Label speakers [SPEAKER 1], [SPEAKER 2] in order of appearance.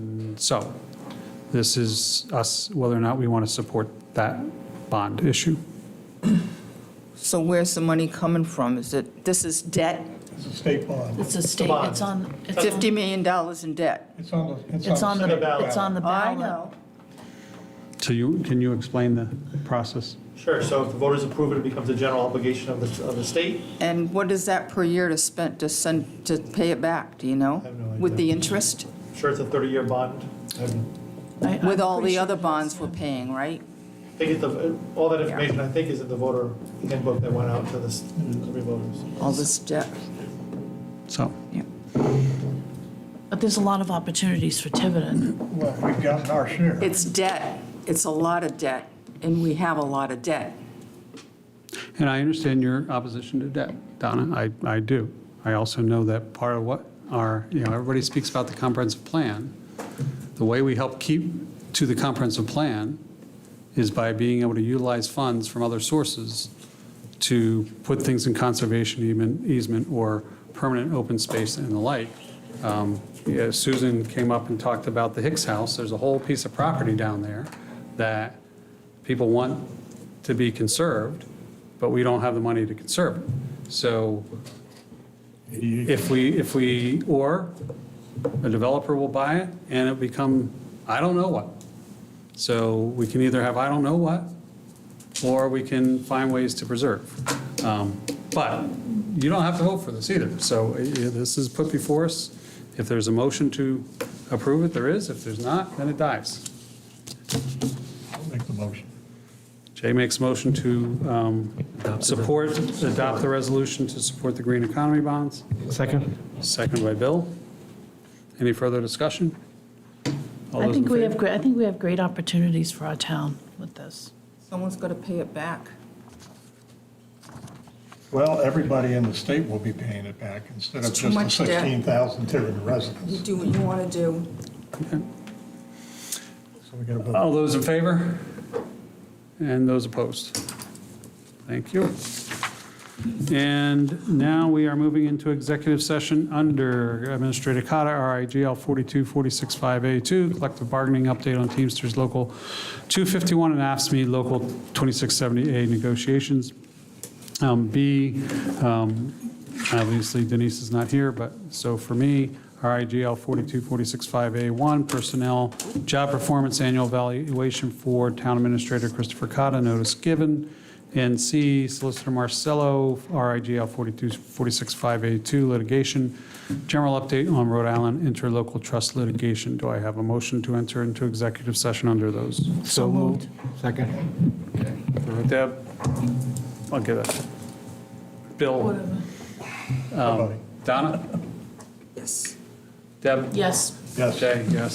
[SPEAKER 1] So this is us, whether or not we want to support that bond issue.
[SPEAKER 2] So where's the money coming from? Is it, this is debt,
[SPEAKER 3] It's a state bond.
[SPEAKER 4] It's a state, it's on, it's on-
[SPEAKER 2] $50 million in debt?
[SPEAKER 3] It's on the, it's on the.
[SPEAKER 4] it's on
[SPEAKER 3] state
[SPEAKER 4] the, it's on the
[SPEAKER 2] I
[SPEAKER 4] ballot.
[SPEAKER 2] know.
[SPEAKER 1] So you, can you explain the process?
[SPEAKER 5] Sure, so if the voters approve it, it becomes a general obligation of the, of the state.
[SPEAKER 2] And what is that per year to spend, to send, to pay it back, do you know?
[SPEAKER 5] I have no
[SPEAKER 2] With
[SPEAKER 5] idea.
[SPEAKER 2] the interest?
[SPEAKER 5] Sure, it's a 30-year bond. And
[SPEAKER 4] I- I'm
[SPEAKER 2] With all
[SPEAKER 4] pretty
[SPEAKER 2] the
[SPEAKER 4] sure
[SPEAKER 2] other
[SPEAKER 4] that's-
[SPEAKER 2] bonds we're paying, right?
[SPEAKER 5] I think it's the, all that information, I think, is in the voter handbook that went out to the, s- every voters.
[SPEAKER 2] All this debt.
[SPEAKER 1] So,
[SPEAKER 4] But there's a lot of opportunities for Tiverton.
[SPEAKER 3] Well, we've gotten our share.
[SPEAKER 2] It's debt, it's a lot of debt, and we have a lot of debt.
[SPEAKER 1] and I understand your opposition to debt, Donna, I, I do. I also know that part of what our, you know, everybody speaks about the comprehensive plan. The way we help keep to the comprehensive plan is by being able to utilize funds from other sources to put things in conservation easement- easement or permanent open space and the like. Um, yeah, Susan came up and talked about the Hicks House. There's a whole piece of property down there that people want to be conserved, but we don't have the money to conserve it. So if we, if we, or a developer will buy it and it become, I don't know what. So we can either have I don't know what, or we can find ways to preserve. Um, But you don't have to vote for this either. So eh, eh, this is put before us. If there's a motion to approve it, there is. If there's not, then it dies.
[SPEAKER 3] I'll Make the motion.
[SPEAKER 1] Jay makes motion to um, support, adopt the resolution to support the green economy bonds.
[SPEAKER 6] Second?
[SPEAKER 1] Second by Bill. Any further discussion? All
[SPEAKER 4] I
[SPEAKER 1] those in
[SPEAKER 4] think we have,
[SPEAKER 1] favor?
[SPEAKER 4] gre- I think we have great opportunities for our town with this.
[SPEAKER 2] Someone's got to pay it back.
[SPEAKER 3] Well, everybody in the state will be paying it back instead of
[SPEAKER 2] It's too
[SPEAKER 3] just the
[SPEAKER 2] much debt.
[SPEAKER 3] 16,000 Tiverton
[SPEAKER 2] You
[SPEAKER 3] residents.
[SPEAKER 2] do what you want to do.
[SPEAKER 3] So we got to vote.
[SPEAKER 1] All those in favor? And those opposed? Thank you. And now we are moving into executive session under Administrator Cotta, RIGL 42465A2, collective bargaining update on Teamsters Local 251 and AFSMI E Local 2670A negotiations. Um, B, um, obviously Denise is not here, but, so for me, RIGL 42465A1, Personnel Job Performance Annual Evaluation for Town Administrator Christopher Cotta, notice given. And C, Solicitor Marcello, RIGL 42465A2, Litigation, General Update on Rhode Island Interlocal Trust Litigation. Do I have a motion to enter into executive session under those?
[SPEAKER 6] So moved. Second?
[SPEAKER 1] Deb? I'll get it. Bill? Um, Donna?
[SPEAKER 2] Yes.
[SPEAKER 1] Deb?
[SPEAKER 4] Yes.
[SPEAKER 3] Yes.
[SPEAKER 1] Jay, yes.